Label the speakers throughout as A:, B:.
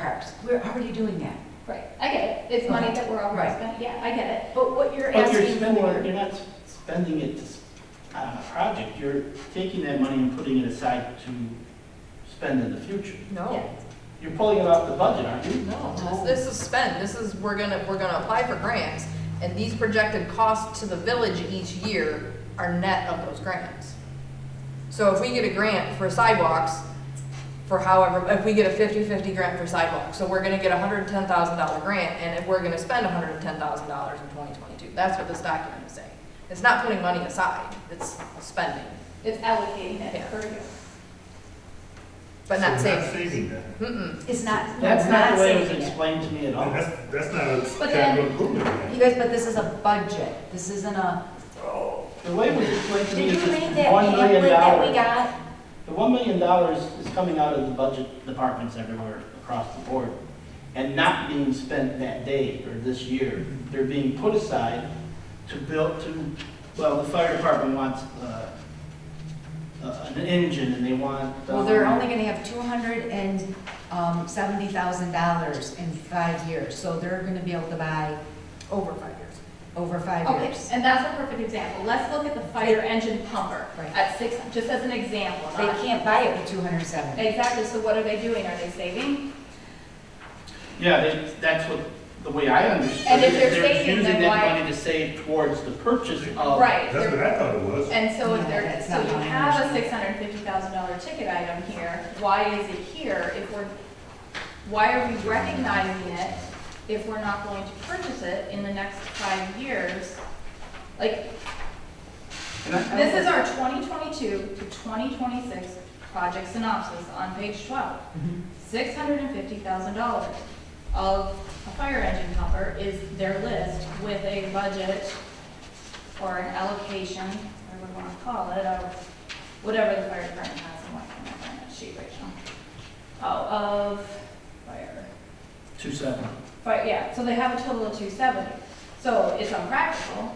A: parks. We're already doing that.
B: Right, I get it. It's money that we're already
A: Right.
B: spending. Yeah, I get it.
A: But what you're
C: But you're
A: asking
C: spending,
A: for,
C: it- you're not spending it to s- on a project, you're taking that money and putting it aside to spend in the future.
D: No,
C: You're pulling it off the budget, aren't you?
D: no, this this is spent, this is, we're gonna, we're gonna apply for grants, and these projected costs to the village each year are net of those grants. So if we get a grant for sidewalks, for however, if we get a 50-50 grant for sidewalks, so we're gonna get a hundred and ten thousand dollar grant, and if we're gonna spend hundred and ten thousand dollars in twenty twenty-two, that's what this document is saying. It's not putting money aside, it's spending,
B: It's allocating it
D: Yeah.
B: for you.
D: but not
E: So we're
D: saving.
E: Saving that.
D: Mm-mm.
A: it's not,
C: That's not the way it was
A: saving it.
C: explained to me at
E: And
C: all.
E: That's, that's not
B: But
E: a
B: then-
E: capital improvement.
A: You guys, but this is a budget. This isn't a,
C: The way it was explained to me
A: did
C: is
A: you read
C: just
A: that
C: one
A: pamphlet
C: million
A: that we
C: dollars.
A: got?
C: The one million dollars is coming out of the budget departments everywhere across the board and not being spent that day or this year. They're being put aside to build, to, well, the fire department wants, uh, uh, an engine and they want.
A: Well, they're
C: um,
A: only gonna have two hundred and um, seventy thousand dollars in five years, so they're gonna be able to buy
D: over five years.
A: over five
B: Okay,
A: years.
B: and that's a perfect example. Let's look at the fire engine pumper
A: Right.
B: at six, just as an example.
A: They
B: not-
A: can't buy it with two hundred and seventy.
B: Exactly, so what are they doing? Are they saving?
C: Yeah, they- that's what, the way I understood it.
B: And if they're saving,
C: They're using
B: then
C: that
B: why-
C: money to save towards the purchase of.
B: Right.
E: Oh, That's what I thought it was.
B: And so if
A: No,
B: they're,
A: that's
B: so
A: not
B: you
A: how I
B: have a
A: understand
B: six hundred and fifty thousand dollar ticket item here, why is it here if we're, why are we recognizing it if we're not going to purchase it in the next five years? Like,
C: And I- I-
B: This is our 2022 to 2026 project synopsis on page 12. $650,000 of a fire engine pumper is their list with a budget or an allocation, whatever we want to call it, or whatever the fire department has and what can I find that sheet, Rachel? Oh, of fire.
C: Two seven.
B: But yeah, so they have a total of two seventy. So it's unpractical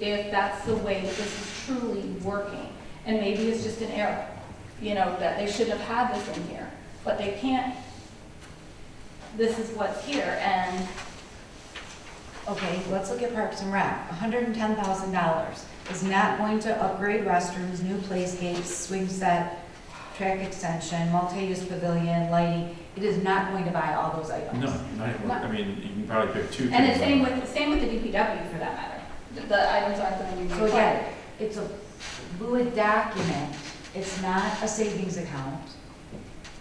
B: if that's the way that this is truly working. And maybe it's just an error, you know, that they shouldn't have had this in here, but they can't. This is what's here and,
A: Okay, let's look at Parks and Rec. hundred and ten thousand dollars is not going to upgrade restrooms, new playscapes, swing set, track extension, multi-use pavilion, lighting. It is not going to buy all those items.
F: No, not, even- I mean, you can probably pick two.
B: and
F: things
B: it's same
F: up.
B: with, same with the DPW for that matter. The- The items aren't gonna be
A: So
B: required.
A: again, it's a fluid document. It's not a savings account.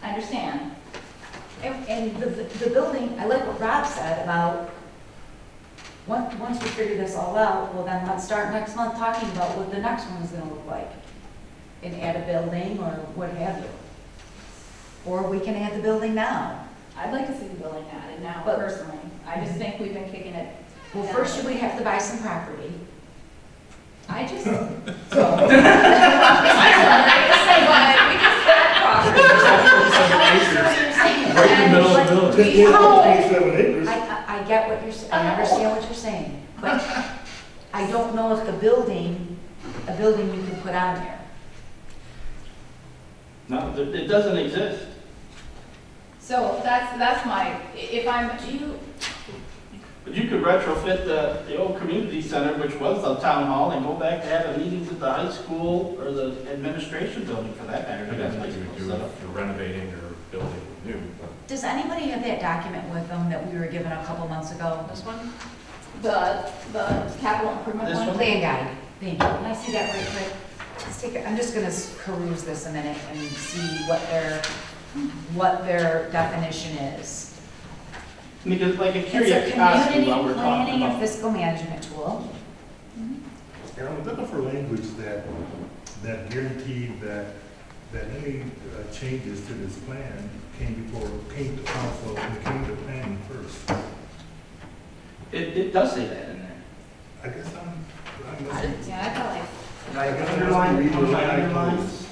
B: I understand.
A: And, and the, the building, I like what Rob said about, once, once we figure this all out, well then let's start next month talking about what the next one is gonna look like. And add a building or what have you. Or we can add the building now.
B: I'd like to see the building added now
A: But-
B: personally. I just think we've been kicking it.
A: Well, first should we have to buy some property?
B: I just.
A: So,
B: I just say, but we just had property.
F: Right in the middle of the village.
E: Just give them Twenty-seven acres.
A: I, I, I get what you're, s- I understand what you're saying, but I don't know if the building, a building you can put on there.
C: No, th- it doesn't exist.
B: So that's, that's my, i- if I'm, do you,
C: But you could retrofit the, the old community center, which was the town hall, and go back to having meetings at the high school or the administration building for that matter.
F: I
C: that's
F: guess
C: high
F: what you
C: school
F: would do
C: stuff.
F: if you're renovating or building new, but
A: Does anybody have that document with them that we were given a couple months ago?
D: This one?
B: the, the capital improvement
C: This
B: one?
C: one?
A: Plan guide, thank you. Can I see that right quick? Let's take, a- I'm just gonna s- peruse this a minute and see what their, what their definition is.
C: Because like a
A: It's a
C: curiosity
A: community
C: while we're talking
A: planning and
C: about.
A: fiscal management tool.
E: And I'm looking for language that, that guaranteed that, that any uh, changes to this plan came before, came to council and came to planning first.
C: It, it does say that in there.
E: I guess I'm, I
D: I
E: must,
D: didn't-
B: Yeah, I felt like.
C: Like
E: guess I must be
C: underline,
E: reading the line
C: underline, underline.
E: items.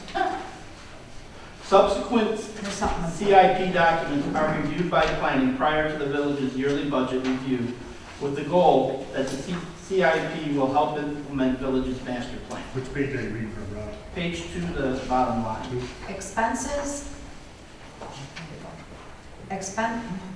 C: Subsequent
A: There's something.
C: CIP documents are reviewed by planning prior to the village's yearly budget review with the goal that the C- CIP will help implement village's master plan.
E: which page are you reading from, Rob?
C: Page two, the bottom line.
A: Expenses. Expen,